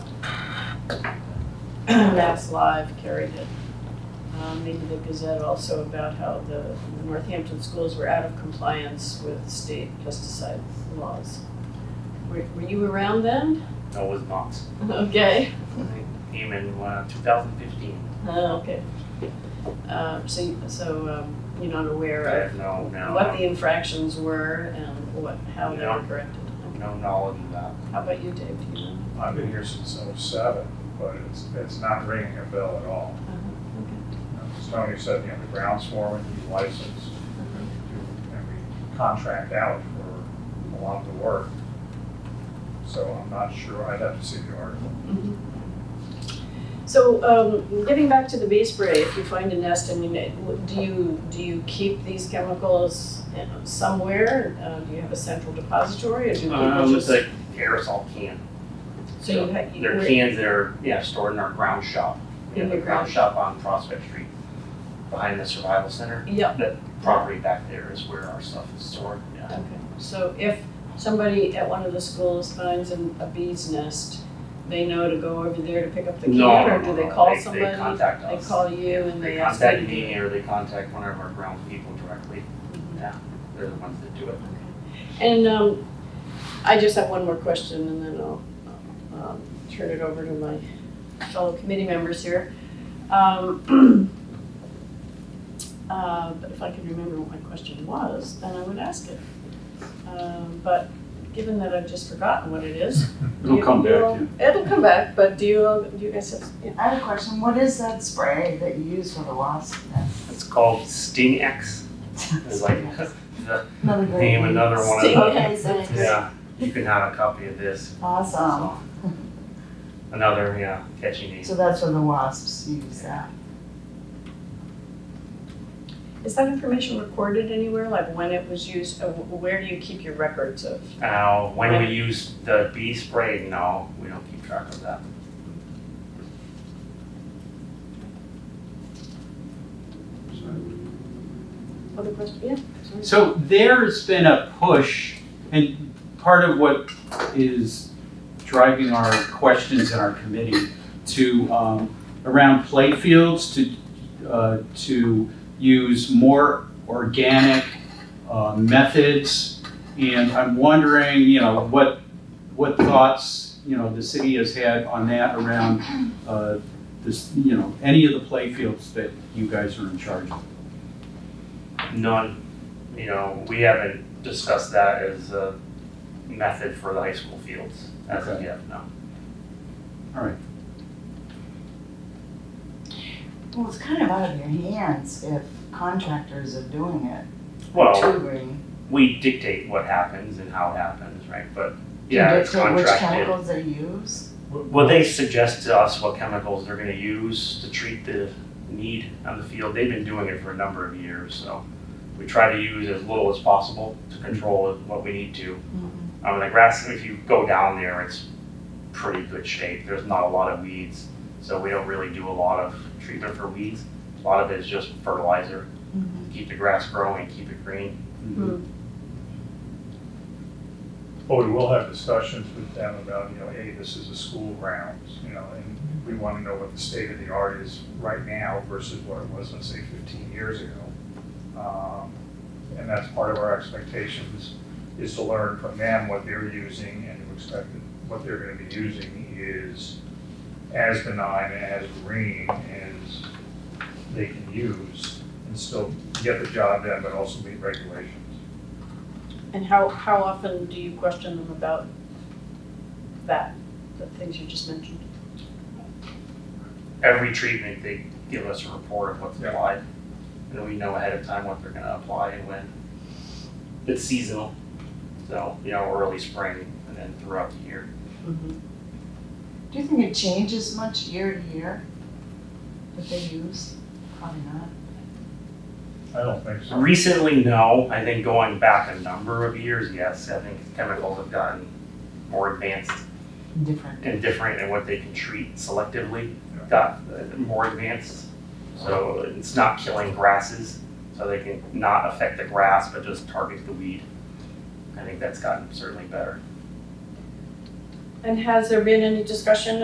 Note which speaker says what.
Speaker 1: Mass Live carried it. Um, Maybe the Gazette also about how the the Northampton schools were out of compliance with state pesticide laws. Were were you around then?
Speaker 2: No, it was not.
Speaker 1: Okay.
Speaker 2: I came in uh, 2015.
Speaker 1: Oh, okay. Um, so, you- so, um, you're not
Speaker 2: I
Speaker 1: aware
Speaker 2: have
Speaker 1: of
Speaker 2: no, no,
Speaker 1: what the infractions were and what, how they were
Speaker 2: No.
Speaker 1: corrected? Okay.
Speaker 2: no knowledge of that.
Speaker 1: How about you, Dave, do you know?
Speaker 3: I've been here since '07, but it's, it's not ringing a bell at all.
Speaker 1: Okay.
Speaker 3: Tony said, you know, the grounds foreman, he's licensed, and we do- and we contract out for a lot of the work. So I'm not sure, I'd have to see the article.
Speaker 1: Mhm. So, um, getting back to the bee spray, if you find a nest, I mean, it- w- do you, do you keep these chemicals you know, somewhere? Uh, do you have a central depository or do people
Speaker 2: Um,
Speaker 1: just?
Speaker 2: it's like aerosol can.
Speaker 1: So you ha- you-
Speaker 2: They're
Speaker 1: where-
Speaker 2: cans that are, yeah, stored in our ground shop. We
Speaker 1: In
Speaker 2: have a
Speaker 1: your
Speaker 2: ground
Speaker 1: ground-
Speaker 2: shop on Prospect Street, behind the Survival Center.
Speaker 1: Yeah,
Speaker 2: That property back there is where our stuff is stored, yeah.
Speaker 1: okay. So if somebody at one of the schools finds an, a bee's nest, they know to go over there to pick up the can?
Speaker 2: No, no,
Speaker 1: Or do
Speaker 2: no,
Speaker 1: they
Speaker 2: no.
Speaker 1: call
Speaker 2: They
Speaker 1: somebody?
Speaker 2: contact
Speaker 1: They
Speaker 2: us.
Speaker 1: call you and
Speaker 2: They
Speaker 1: they ask you to Mm-hmm.
Speaker 2: contact
Speaker 1: do
Speaker 2: me
Speaker 1: it?
Speaker 2: or they contact one of our ground people directly. Yeah, they're the ones that do it.
Speaker 1: And um, I just have one more question and then I'll um, turn it over to my fellow committee members here. Um, uh, But if I can remember what my question was, then I would ask it. Um, But given that I've just forgotten what it is.
Speaker 4: It'll
Speaker 1: you-
Speaker 4: come back,
Speaker 1: you'll- It'll come back, but do you, all- do you guys have, yeah,
Speaker 5: I have a question. What is that spray that you use for the wasp nest?
Speaker 2: It's called Sting X. It's like the
Speaker 5: Another great
Speaker 2: name, another one of
Speaker 1: Sting
Speaker 2: the.
Speaker 5: Okay, so it's
Speaker 2: Yeah, you can have a copy of this.
Speaker 5: awesome.
Speaker 2: So, Another, yeah, catchy name.
Speaker 5: Um. So that's when the wasps use that.
Speaker 1: is that information recorded anywhere? Like when it was used, Uh, wh- where do you keep your records of?
Speaker 2: Uh, when we use the bee spray, no, we don't keep track of that.
Speaker 1: Other question, yeah? sorry.
Speaker 4: So there's been a push, and part of what is driving our questions in our committee to, um, around playfields to, uh, to use more organic, uh, methods. And I'm wondering, you know, what, what thoughts, you know, the city has had on that around, uh, this, you know, any of the playfields that you guys are in charge of?
Speaker 2: None, you know, we haven't discussed that as a method for the high school fields as of
Speaker 4: Okay.
Speaker 2: yet, no.
Speaker 5: Well, it's kind of out of your hands if contractors are doing it.
Speaker 2: Well,
Speaker 5: To agree.
Speaker 2: we dictate what happens and how it happens, right? But
Speaker 5: Do
Speaker 2: yeah,
Speaker 5: you
Speaker 2: it's
Speaker 5: dictate which
Speaker 2: contracted.
Speaker 5: chemicals they use?
Speaker 2: Well, they suggest to us what chemicals they're gonna use to treat the need on the field. They've been doing it for a number of years, so we try to use as little as possible to control what we need to. Um, the grass, if you go down there, it's pretty good shape. There's not a lot of weeds, so we don't really do a lot of treatment for weeds. A lot of it is just fertilizer,
Speaker 5: Mhm.
Speaker 2: keep the grass growing, keep it green.
Speaker 3: But Oh, we will have discussions with them about, you know, hey, this is a school grounds, you know, and we want to know what the state of the art is right now versus what it was, let's say, fifteen years ago. Um, And that's part of our expectations, is to learn from them what they're using and to expect that what they're going to be using is as benign, as green as they can use and still get the job done, but also meet regulations.
Speaker 1: And how, how often do you question them about that, the things you just mentioned?
Speaker 2: Every treatment, they give us a report of what's
Speaker 3: Yeah.
Speaker 2: applied, and we know ahead of time what they're gonna apply and when. It's seasonal, so, you know, early spring and then throughout the year.
Speaker 5: Do you think it changes much year to year? What they use? Probably not.
Speaker 3: I don't think so.
Speaker 2: Recently, no. I think going back a number of years, yes. I think chemicals have gotten more advanced
Speaker 5: Different.
Speaker 2: and different in what they can treat selectively. Got uh, more advanced, so it's not killing grasses, so they can not affect the grass, but just target the weed. I think that's gotten certainly better.
Speaker 1: And has there been any discussion